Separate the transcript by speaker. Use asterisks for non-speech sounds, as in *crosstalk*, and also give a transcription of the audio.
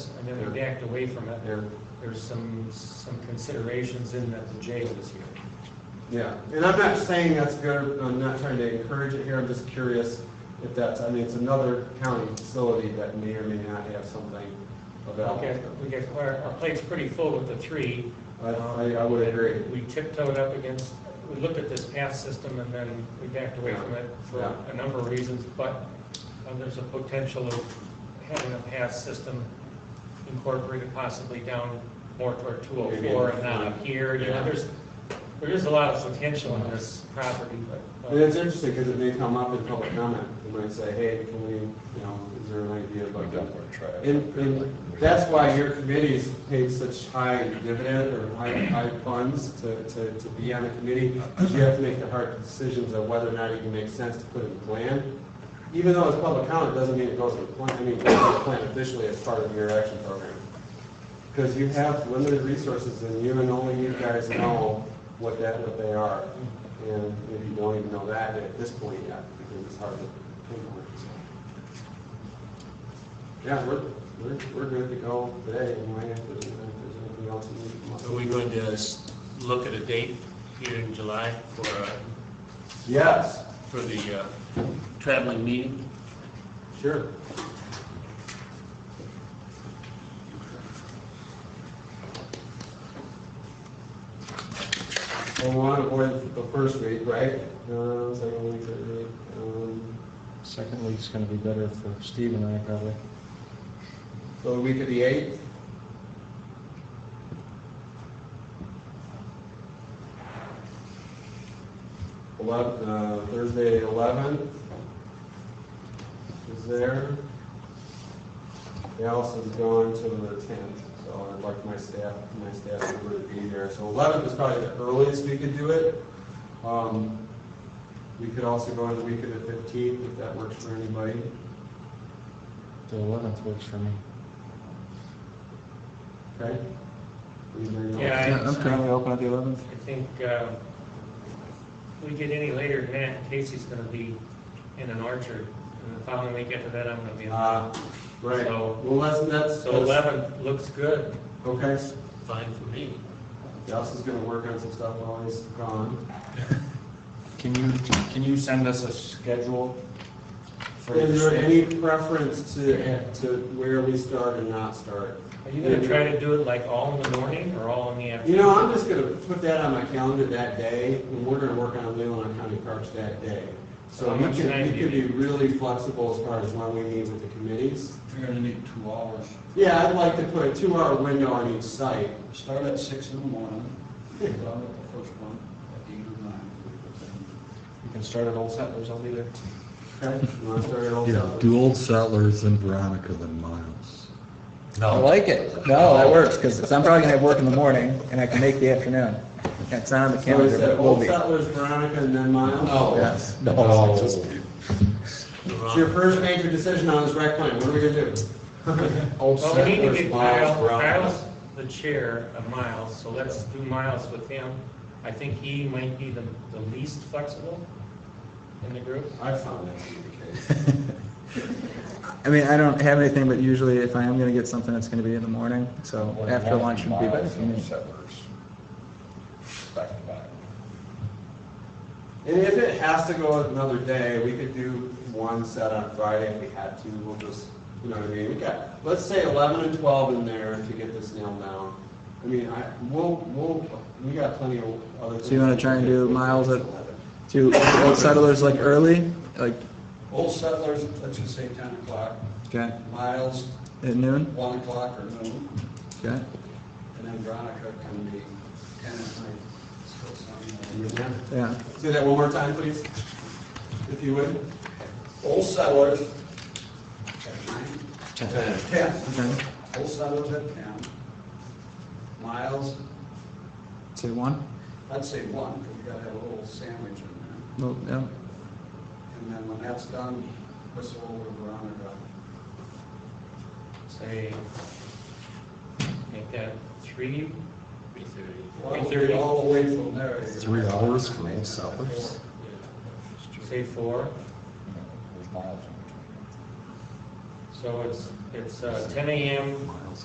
Speaker 1: and then we backed away from it.
Speaker 2: Yeah.
Speaker 1: There's some, some considerations in that the jail is here.
Speaker 2: Yeah, and I'm not saying that's good, I'm not trying to encourage it here, I'm just curious if that's, I mean, it's another county facility that may or may not have something
Speaker 1: Okay,
Speaker 2: available.
Speaker 1: we get, our, our plate's pretty full with the three. Um,
Speaker 2: I- I- I would agree.
Speaker 1: We tiptoed up against, we looked at this path system and then we backed away from it for
Speaker 2: Yeah.
Speaker 1: a number of reasons, but uh, there's a potential of having a path system incorporated possibly down more toward two oh four and not up here, you know,
Speaker 2: Yeah.
Speaker 1: there's, there is a lot of potential in this property, but.
Speaker 2: And
Speaker 1: uh,
Speaker 2: it's interesting because it may come up in public comment, they might say, hey, can we, you know, is there an idea about that? And, and that's why your committee's paid such high dividend or high, high funds to, to, to be on the committee, because you have to make the hard decisions of whether or not it even makes sense to put in the plan. Even though it's public comment, doesn't mean it goes in the plan, I mean, it goes in the plan officially as part of your action program. Because you have limited resources and you and only you guys know what that, what they are. And maybe you don't even know that at this point yet, because it's hard to pinpoint, so. Yeah, we're, we're, we're good to go today, anyway, if there's, if there's anything else you need from us.
Speaker 3: Are we going to s- look at a date here in July for, uh,
Speaker 2: Yes,
Speaker 3: for the uh, traveling meeting?
Speaker 2: sure. Well, we want to avoid the first week, right? Uh, second week, third week, um,
Speaker 4: Second week's gonna be better for Steve and I probably.
Speaker 2: so the week of the eighth? Eleven, uh, Thursday, eleventh is there. Allison's going to the tenth, so I'd like my staff, my staff member to be there. So eleventh is probably the earliest we could do it. Um, we could also go on the week of the fifteenth, if that works for anybody.
Speaker 4: The eleventh works for me.
Speaker 2: Okay? Anybody else?
Speaker 1: Yeah, I-
Speaker 4: open at the eleventh.
Speaker 1: I think uh, if we get any later than that, Casey's going to be in an orchard, and the following week after that, I'm going to be in.
Speaker 2: Uh, right,
Speaker 1: So-
Speaker 2: well, that's, that's.
Speaker 1: So 11 looks good.
Speaker 2: Okay,
Speaker 3: Fine for me.
Speaker 2: Dallas is gonna work on some stuff while he's gone.
Speaker 4: Can you, can you send us a schedule? for
Speaker 2: Is
Speaker 4: your
Speaker 2: there
Speaker 4: state?
Speaker 2: any preference to, to where we start and not start?
Speaker 1: Are you going to try to do it like all in the morning or all in the afternoon?
Speaker 2: You know, I'm just gonna put that on my calendar that day, and we're gonna work on Leland County Parks that day. So
Speaker 1: How
Speaker 2: you
Speaker 1: much
Speaker 2: can,
Speaker 1: time do
Speaker 2: you
Speaker 1: you
Speaker 2: can be really flexible as far as when we meet with the committees.
Speaker 5: You're gonna need two hours.
Speaker 2: Yeah, I'd like to put a two-hour window on each site.
Speaker 5: Start at six in the morning, get done with the first one at eight or nine.
Speaker 4: You can start at Old Settlers, I'll be there.
Speaker 2: Okay, you wanna start at Old
Speaker 6: Yeah,
Speaker 2: South?
Speaker 6: do Old Settlers and Veronica than Miles.
Speaker 4: I like it. No, that works, because I'm probably gonna have work in the morning, and I can make the afternoon. It's not on the
Speaker 2: So
Speaker 4: calendar,
Speaker 2: is
Speaker 4: but
Speaker 2: that
Speaker 4: it will
Speaker 2: Old
Speaker 4: be.
Speaker 2: Settlers, Veronica, and then Miles?
Speaker 5: Oh.
Speaker 4: Yes.
Speaker 6: No.
Speaker 2: It's your first major decision on this rec plan, what are we
Speaker 1: *laughs*
Speaker 2: gonna do?
Speaker 4: Old
Speaker 1: Well, we need to
Speaker 4: Settlers,
Speaker 1: get
Speaker 4: Miles,
Speaker 1: Miles,
Speaker 4: Brown.
Speaker 1: Miles, the chair of Miles, so let's do Miles with him. I think he might be the, the least flexible in the group.
Speaker 2: I found that to be the case.
Speaker 7: I mean, I don't have anything, but usually if I am gonna get something, it's gonna be in the morning, so after lunch would be better for me.
Speaker 2: And if it has to go another day, we could do one set on Friday if we had to, we'll just, you know what I mean? We got, let's say eleven and twelve in there to get this nailed down. I mean, I, we'll, we'll, we got plenty of other.
Speaker 7: So you wanna try and do Miles at- Do Old Settlers like early, like,
Speaker 5: Old settlers, let's just say ten o'clock,
Speaker 7: okay,
Speaker 5: miles,
Speaker 7: at noon,
Speaker 5: one o'clock or noon,
Speaker 7: okay?
Speaker 5: and then Veronica can be ten at night. Still sound like-
Speaker 7: Yeah,
Speaker 2: Say that one more time, please, if you would.
Speaker 5: Old settlers at nine,
Speaker 2: Ten.
Speaker 5: ten,
Speaker 7: okay,
Speaker 5: old settlers at ten, miles,
Speaker 7: say one,
Speaker 5: I'd say one, because you gotta have a little sandwich in there.
Speaker 7: well, yeah,
Speaker 5: And then when that's done, whistle over Veronica.
Speaker 1: Say, make that three,
Speaker 3: Three thirty.
Speaker 5: Well, we'll be All the way from there.
Speaker 6: Three hours for Old Settlers?
Speaker 1: say four.
Speaker 8: So it's, it's uh, ten AM
Speaker 1: Miles.